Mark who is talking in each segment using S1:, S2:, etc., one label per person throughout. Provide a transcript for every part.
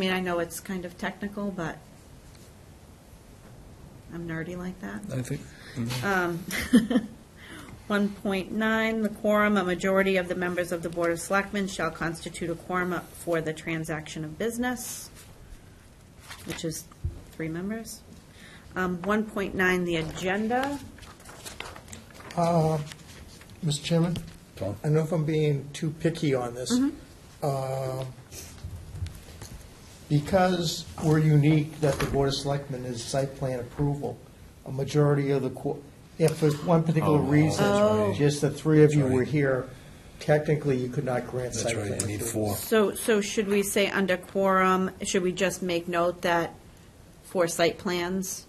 S1: I mean, I know it's kind of technical, but I'm nerdy like that.
S2: I think,
S1: Um, 1.9, the quorum, a majority of the members of the Board of Selectmen shall constitute a quorum for the transaction of business, which is three members. Um, 1.9, the agenda.
S3: Mr. Chairman?
S2: Tom?
S3: I know if I'm being too picky on this. Um, Because we're unique that the Board of Selectmen is site plan approval, a majority of the, qu- if for one particular
S2: Oh,
S1: that's
S3: reason,
S2: right.
S3: just the three of you
S2: That's
S3: were
S2: right.
S3: here, technically you could not grant
S2: that's
S3: site plan.
S2: right, you need
S3: approval.
S2: four.
S1: So, so should we say under quorum, should we just make note that for site plans,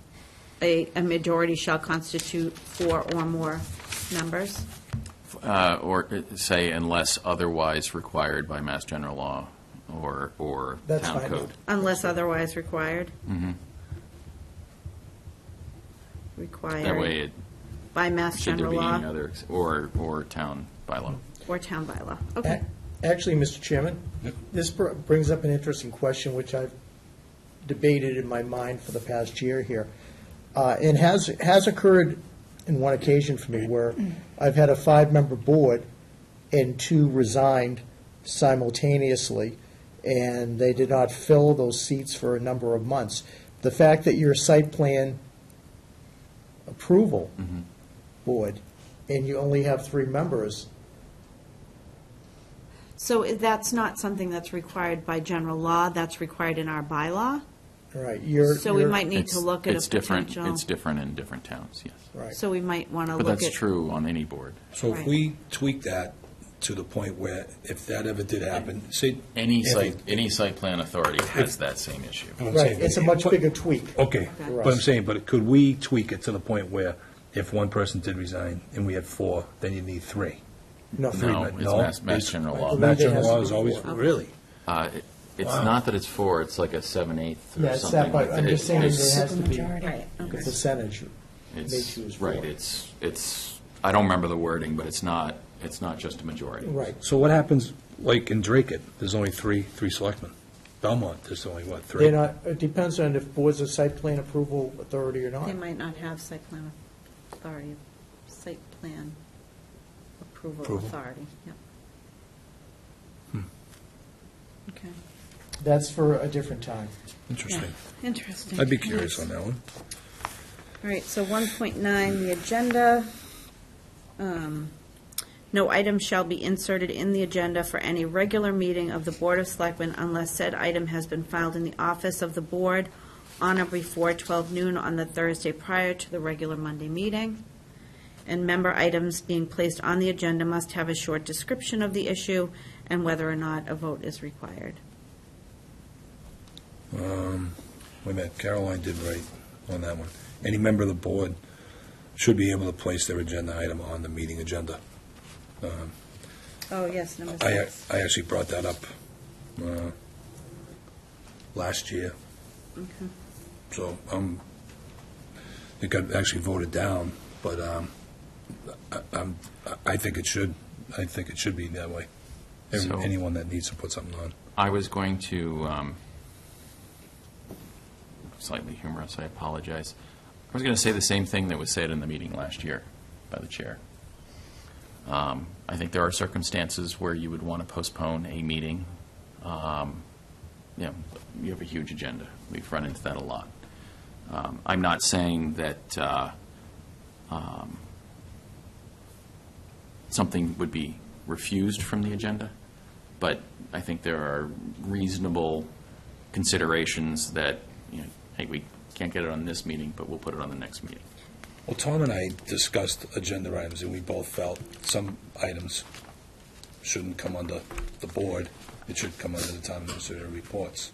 S1: a, a majority shall constitute four or more members?
S4: Uh, Or uh, say unless otherwise required by Mass General Law or, or
S3: That's
S4: town
S3: fine.
S4: code.
S1: Unless otherwise required?
S4: Mm-hmm.
S1: Required.
S4: That way, it
S1: By Mass
S4: should there
S1: General
S4: be any
S1: Law
S4: other, ex- or, or town bylaw.
S1: or town bylaw.
S3: A-
S1: Okay.
S3: Actually, Mr. Chairman, this br- brings up an interesting question, which I've debated in my mind for the past year here. Uh, It has, has occurred in one occasion for me where I've had a five-member board and two resigned simultaneously, and they did not fill those seats for a number of months. The fact that your site plan approval board, and you only have three members,
S1: So i- that's not something that's required by general law, that's required in our bylaw?
S3: Right, you're.
S1: So we
S3: you're-
S1: might need to
S4: It's-
S1: look at
S4: it's
S1: a
S4: different-
S1: potential.
S4: It's different in different towns, yes.
S3: Right.
S1: So we might want to
S4: But
S1: look at.
S4: that's true on any board.
S2: So if
S1: Right.
S2: we tweak that to the point where, if that ever did happen, say.
S4: Any
S2: if
S4: site,
S2: it-
S4: any site plan authority has that same issue.
S2: I'm
S3: Right,
S2: saying-
S3: it's a much bigger tweak.
S2: Okay,
S1: Okay.
S2: but I'm saying, but could we tweak it to the point where if one person did resign and we had four, then you need three?
S3: No,
S2: Three,
S4: No,
S2: but
S4: it's Mass- Mass General Law.
S2: Mass General
S3: It has to
S2: Law
S3: be
S2: is always,
S3: four.
S2: really?
S4: Uh, it- It's
S2: Wow.
S4: not that it's four, it's like a seven-eighth
S3: Yeah,
S4: or
S3: it's that,
S4: something like
S3: but
S4: that.
S3: I'm just
S4: It-
S3: saying there
S4: it's-
S3: has to be,
S1: Right, okay.
S3: it's a percentage. They
S4: It's,
S3: choose
S4: right,
S3: four.
S4: it's, it's, I don't remember the wording, but it's not, it's not just a majority.
S3: Right,
S2: So what happens, like in Drake, it, there's only three, three selectmen. Belmont, there's only, what, 3
S3: they're not, it depends on if boards of site plan approval authority or not.
S1: They might not have site plan authority, site plan approval
S2: Approval. Hmm.
S1: authority, yep. Okay.
S3: That's for a different time.
S2: Interesting.
S1: Yeah, Interesting.
S2: I'd be curious on that one.
S1: All right, so 1.9, the agenda. Um, No item shall be inserted in the agenda for any regular meeting of the Board of Selectmen unless said item has been filed in the office of the board on or before 12 noon on the Thursday prior to the regular Monday meeting. And member items being placed on the agenda must have a short description of the issue and whether or not a vote is required.
S2: Um, Wait a minute, Caroline did right on that one. Any member of the board should be able to place their agenda item on the meeting agenda. Um,
S1: Oh, yes, number
S2: I,
S1: six.
S2: I actually brought that up uh, last year,
S1: Okay.
S2: so um, I think I actually voted down, but um, I- I'm, I think it should, I think it should be that way. Every-
S4: So-
S2: Anyone that needs to put something on.
S4: I was going to, um, slightly humorous, I apologize. I was going to say the same thing that was said in the meeting last year by the chair. Um, I think there are circumstances where you would want to postpone a meeting. Um, You know, you have a huge agenda. We've run into that a lot. Um, I'm not saying that uh, um, something would be refused from the agenda but I think there are reasonable considerations that, you know, hey, we can't get it on this meeting, but we'll put it on the next meeting.
S2: Well, Tom and I discussed agenda items, and we both felt some items shouldn't come under the board. It should come under the town administrator reports.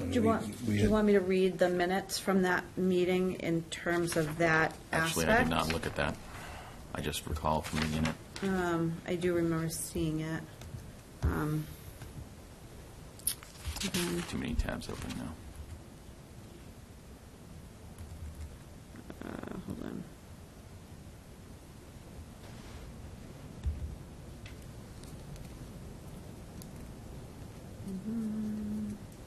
S2: I mean,
S1: Do you
S2: we-
S1: want, do
S2: we
S1: you
S2: had-
S1: want me to read the minutes from that meeting in terms of that aspect?
S4: Actually, I did not look at that. I just recall from the unit.
S1: I do remember seeing it. Um,
S4: Too many tabs open now.